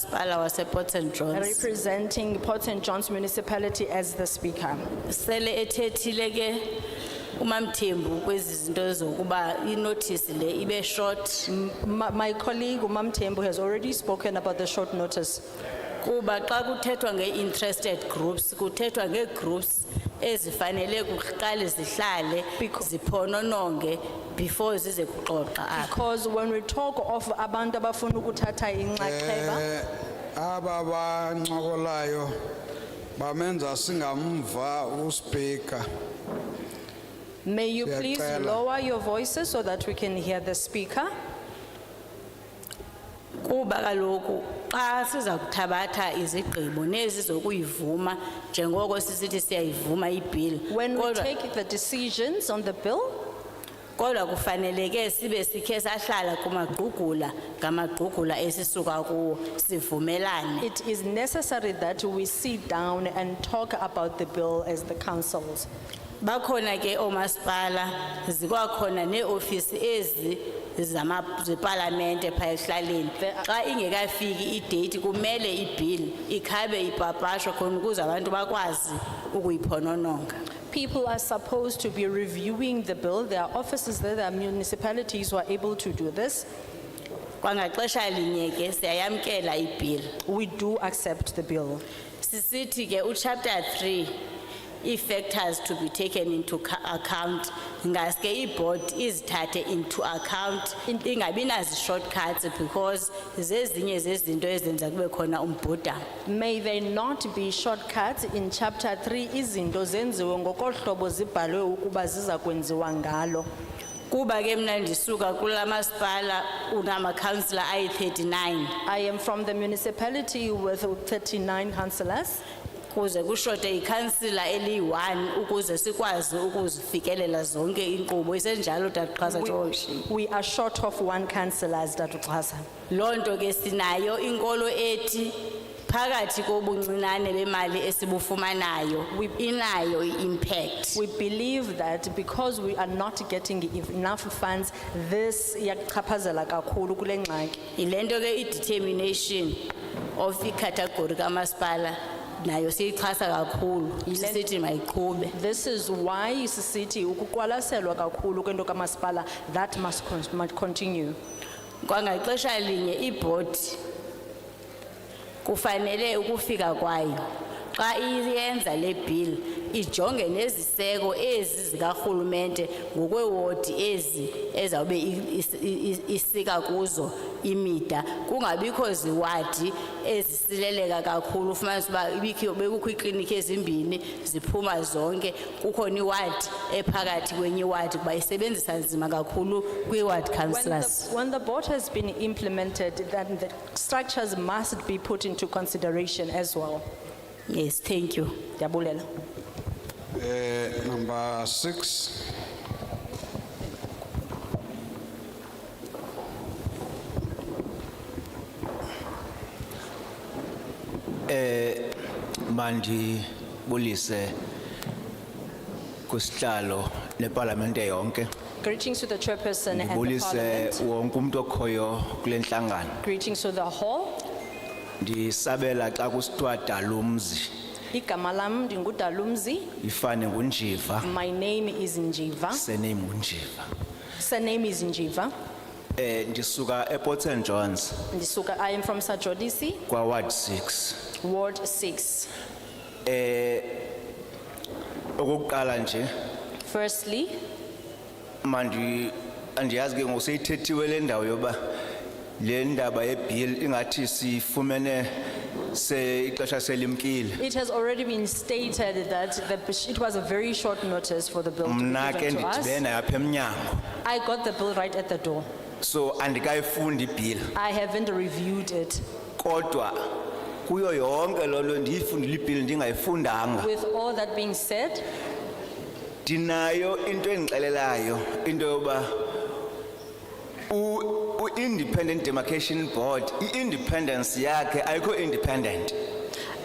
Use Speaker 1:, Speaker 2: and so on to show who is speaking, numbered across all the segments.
Speaker 1: umasipala waseport st johns
Speaker 2: representing Port St. John's Municipality as the speaker.
Speaker 1: sele ethethile ke umamthembu kwezi zinto zokuba inothisi le ibe short
Speaker 2: My my colleague Umam Tembu has already spoken about the short notice.
Speaker 1: kuba xa kuthethwa nge-interested groups kuthethwa ngee-groups ezifanele kuqale zihlale
Speaker 2: Becau-
Speaker 1: ziphonononge before zize kuxoxa apha
Speaker 2: Because when we talk of abantu abafuna ukuthatha inxaxheba,
Speaker 3: Eh, aba bancokolayo bamenza singamva uspika
Speaker 2: may you please
Speaker 3: Siyacela.
Speaker 2: lower your voices so that we can hear the speaker.
Speaker 1: kuba kaloku xa siza kuthabatha izigqibo nezizokuyivuma njengoko sisithi siyayivuma ibhili
Speaker 2: When we
Speaker 1: kodwa-
Speaker 2: take the decisions on the bill,
Speaker 1: kodwa kufaneleke sibe sikhe sahlala kumagqugula ngamagqugula esisuka kuwo sivumelane
Speaker 2: it is necessary that we sit down and talk about the bill as the councils.
Speaker 1: bakhona ke oomasipala zikwakhona neeofisi ezi zama- zepalamente phaa ekuhlaleni
Speaker 2: There are-
Speaker 1: xa ingekafiki ideyithi kumele ibhili ikhabe ipapashwa khona ukuze abantu bakwazi ukuyiphonononga
Speaker 2: People are supposed to be reviewing the bill. There are offices, there there are municipalities who are able to do this.
Speaker 1: kwangaxesha linye ke siyayamkela ibhili
Speaker 2: We do accept the bill.
Speaker 1: sisithi ke uchapter 3 ii-factors to be taken into ca- account ngaske iboard izithathe into account ingabi nazi-shortcuts because zezinye zezinto ezenza kube khona umbhudamo
Speaker 2: May there not be shortcuts in chapter three, izinto zenziwe ngokohlobo zibhalwe ukuba ziza kwenziwa ngalo.
Speaker 1: kuba ke mna ndisuka kula masipala unamakhansila ayi-39
Speaker 2: I am from the municipality with thirty-nine councillors.
Speaker 1: kuze kushote ikhansila eliyi-1 ukuze sikwazi ukuzifikelela zonke inkqubo isenjalo tatqhasa
Speaker 2: We-
Speaker 1: Joshi.
Speaker 2: We are short of one councillor, as Dr. Xhasa.
Speaker 1: loo nto ke sinayo inkolo ethi phakathi kobuncinane bemali esibufumanayo inayo i-impact
Speaker 2: We believe that because we are not getting enough funds, this yakuchaphazela kakhulu kule ngxaki.
Speaker 1: yile nto ke i-determination of ikhathagori kamasipala nayo siyixhasa kakhulu sisithi mayiqhube
Speaker 2: This is why isisithi ukuqwalaselwa kakhulu kwento kamasipala, that must con- must continue.
Speaker 1: kwangaxesha linye ibhodi kufanele ukufika kwayo xa iyenza le bill ijonge neziseko ezi zikarhulumente ngokweewodi ezi ezawube i- is- i- is- isika kuzo imida kungabikho ziwadi ezisileleka kakhulu ufumanise uba ibikho- bekukho iikliniki ezimbini ziphuma zonke kukhona iwadi ephakathi kwenye iwadi kuba isebenzisa nzima kakhulu kwi-ward
Speaker 2: When the,
Speaker 1: councillors
Speaker 2: when the board has been implemented, then the structures must be put into consideration as well.
Speaker 1: Yes, thank you.
Speaker 2: Ndiyabulela.
Speaker 3: eh number 6
Speaker 4: mandibulise kusihlalo nepalamente yonke
Speaker 2: Greetings to the chairperson and the
Speaker 4: ndibulise
Speaker 2: parliament.
Speaker 4: wonke umuntu okhoyo kule nhlangano
Speaker 2: Greetings to the hall.
Speaker 4: ndisabela xa kusithiwa dalumzi
Speaker 2: Igama lam ndingudalumzi.
Speaker 4: ifane ngunjiva
Speaker 2: My name is Njiva.
Speaker 4: sename ngunjiva
Speaker 2: Surname is Njiva.
Speaker 4: um ndisuka eport st johns
Speaker 2: Ndisuka, I am from Sajodisi,
Speaker 4: kwaward six Eh,
Speaker 2: Ward 6.
Speaker 4: okokuqala nje
Speaker 2: Firstly,
Speaker 4: mandi andiyazi ke ngoseyithethiwe le ndawo yoba le ndaba yebill ingathi siyifumene se ixesha selimkile
Speaker 2: it has already been stated that the, it was a very short notice for the bill to be
Speaker 4: mna ke
Speaker 2: given to us.
Speaker 4: ndidibene apha emnyango
Speaker 2: I got the bill right at the door.
Speaker 4: so andikayifundi ibhili
Speaker 2: I haven't reviewed it.
Speaker 4: kodwa kuyo yonke loo nto ndiyifundile ibhili ndingayifundanga
Speaker 2: With all that being said,
Speaker 4: ndinayo into endixelelayo into yoba u- u-independent demarcation board i-independence yakhe ayikho independent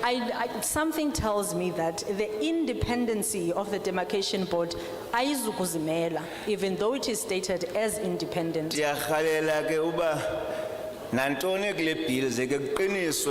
Speaker 2: I, I, something tells me that the independency of the demarcation board, ayizukuzimela, even though it is stated as independent.
Speaker 4: ndiyarhalela ke uba nantoni kule bill ze ke kuqiniswe